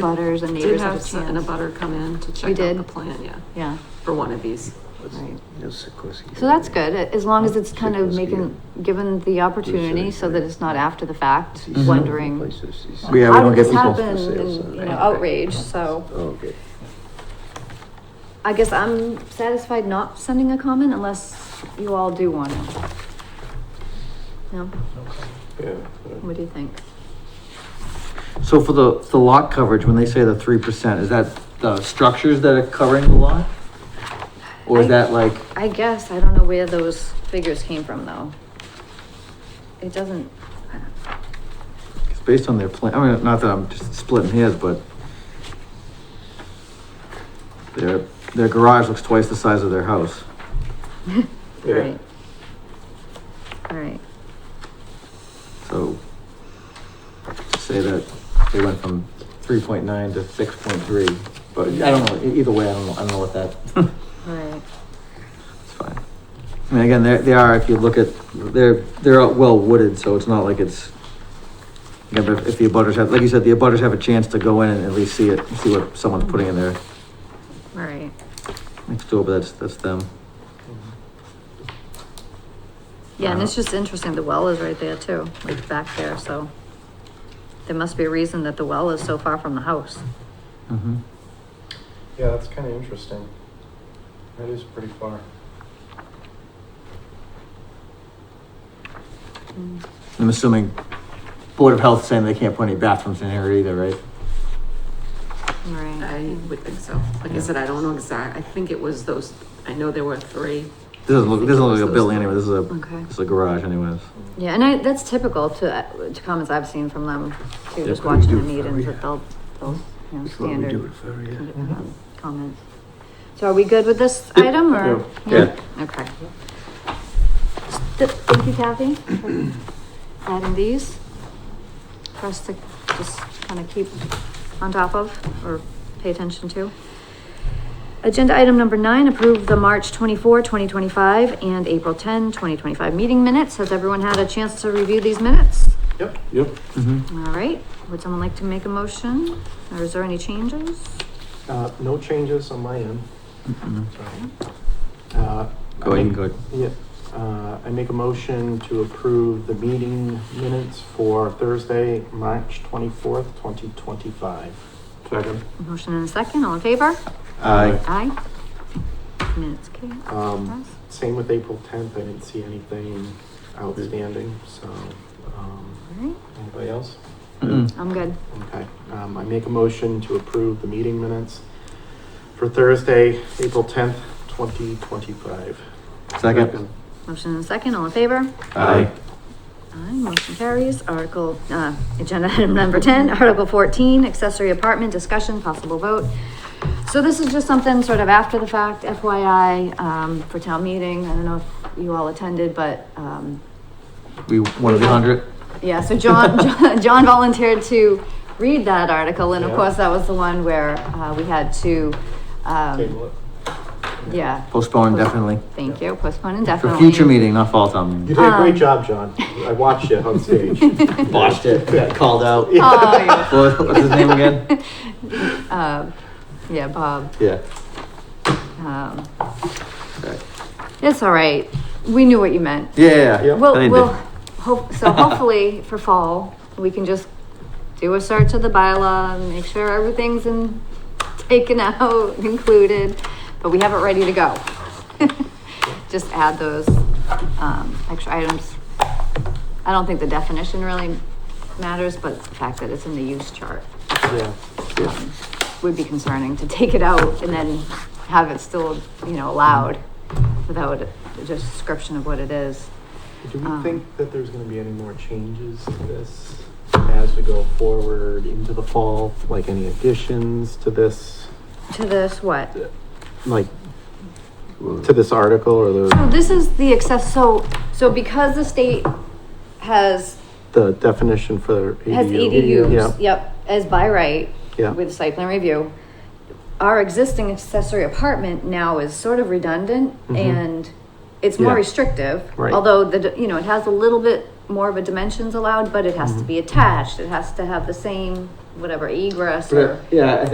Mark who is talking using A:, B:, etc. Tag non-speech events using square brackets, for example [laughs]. A: abutters and
B: Did
A: neighbors have
B: have
A: a
B: some- an
A: chance.
B: abutter come in to check
A: We
B: out
A: did.
B: the plan, yeah,
A: Yeah,
B: for one of these.
A: right.
C: Yes, of course.
A: So that's good, as long as it's kind of
C: Check this
A: making, given the opportunity so that it's not after the fact,
C: Mhm.
A: wondering.
C: Places, these-
D: Yeah, we
A: How
D: don't
A: did
D: get
A: this
D: people. uh,
A: happen?
C: For sale, so-
A: And, You know, outrage, so
C: Oh, Okay.
A: I guess I'm satisfied not sending a comment unless you all do want to. No,
C: Yeah.
A: what do you think?
D: So for the, the lot coverage, when they say the three percent, is that the structures that are covering the lot? Or
A: I-
D: is that like,
A: I guess, I don't know where those figures came from though. It doesn't,
D: it's based on their plan, I mean, not that I'm just splitting hairs, but their, their garage looks twice the size of their house.
C: Yeah.
A: right. All right,
D: So say that they went from three point nine to six point three, but I don't know, e- either way, I don't know, I don't know what that,
A: all right.
D: it's fine. I mean, again, they they are, if you look at, they're, they're well wooded, so it's not like it's, again, but if the abutters have, like you said, the abutters have a chance to go in and at least see it, see what someone's putting in there
A: All right,
D: next door, but that's, that's them.
A: yeah, and it's
C: Uh-huh.
A: just interesting, the well is right there too, like back there, so. There must be a reason that the well is so far from the house.
D: Mm-hmm.
E: Yeah, that's kind of interesting. That is pretty far.
D: I'm assuming Board of Health saying they can't put any bathrooms in here either, right?
B: I
A: Right.
B: would think so. Like I
D: Yeah.
B: said, I don't know exact, I think it was those, I know there were three.
D: This doesn't look, this doesn't look like a building anyway, this is a,
A: Okay.
D: this is a garage anyways.
A: Yeah, and I, that's typical to, uh, to comments I've seen from them, too,
D: Yeah,
A: just
C: could we
A: watching
C: do
A: the
C: it for
A: meetings,
C: you?
A: that they'll, they'll, you know,
C: That's what we do
A: standard
C: it for, yeah.
A: um, comments. So are we good with this item, or?
D: Yeah.
A: Okay. Th- Thank you, Kathy, for adding these for us to just kind of keep on top of or pay attention to. Agenda item number nine, approve the March 24, 2025, and April 10, 2025, meeting minutes. Has everyone had a chance to review these minutes?
E: Yep.
C: Yep.
D: Mm-hmm.
A: All right, would someone like to make a motion, or is there any changes?
E: Uh, no changes on my end. so. Uh, I
D: Mm-hmm. Go ahead,
E: make-
D: go ahead.
E: Yeah, uh, I make a motion to approve the meeting minutes for Thursday, March twenty-fourth, twenty twenty-five. Second.
A: Motion and a second, all in favor?
D: Aye.
A: Aye. Minutes, okay.
E: Um, same with April tenth, I didn't see anything outstanding, so, um,
A: Alright,
E: anybody else?
D: Mm-mm.
A: I'm good.
E: Okay, um, I make a motion to approve the meeting minutes for Thursday, April tenth, twenty twenty-five.
D: Second?
A: Motion and a second, all in favor?
D: Aye.
A: Aye, motion carries. Article, uh, agenda [laughs] item number ten, Article fourteen, accessory apartment discussion, possible vote. So this is just something sort of after the fact FYI, um, for town meeting. I don't know if you all attended, but, um,
D: We, one of the hundred?
A: Yeah, so
E: [laughs]
A: John, John- John volunteered to read that article, and of
E: Yeah.
A: course, that was the one where, uh, we had to, um,
E: Table it.
A: yeah.
D: Postpone indefinitely.
A: Thank you, postpone
D: For
A: indefinitely.
D: future meeting, not fall town
E: You
D: meeting.
E: did a
A: Um,
E: great job, John. I watched you on stage.
A: [laughs]
D: Botched it, got called out.
A: Oh, yeah.
D: What- What's his
A: [laughs]
D: name again?
A: Uh, yeah, Bob,
D: Yeah.
A: um,
D: Okay.
A: it's all right. We knew what you meant.
D: Yeah, yeah, yeah.
E: Yep.
D: I
A: We'll,
D: didn't
A: we'll,
D: do-
A: hope,
D: [laughs]
A: so hopefully for fall, we can just do a search of the bylaw and make sure everything's in, taken out, [laughs] included, but we have it ready to go. [laughs] Just add those, um, extra items. I don't think the definition really matters, but the fact that it's in the use chart
E: Yeah.
A: um, would be concerning to take it out and then have it still, you know, allowed without a description of what it is.
E: Do
A: Um,
E: we think that there's gonna be any more changes to this as we go forward into the fall? Like any additions to this,
A: To this, what?
E: like, to this article or
A: So
E: the,
A: this is the access, so, so because the state has,
E: the definition for ADU?
A: has EDUs,
E: Yeah,
A: yep, as by right.
E: Yeah.
A: With site plan review, our existing accessory apartment now is sort of redundant
E: Mhm.
A: and it's more
E: Yeah.
A: restrictive.
E: Right.
A: Although the, d- you know, it has a little bit more of a dimensions allowed, but it has to be attached, it has to have the same
F: whatever egress or.
A: But, Yeah, I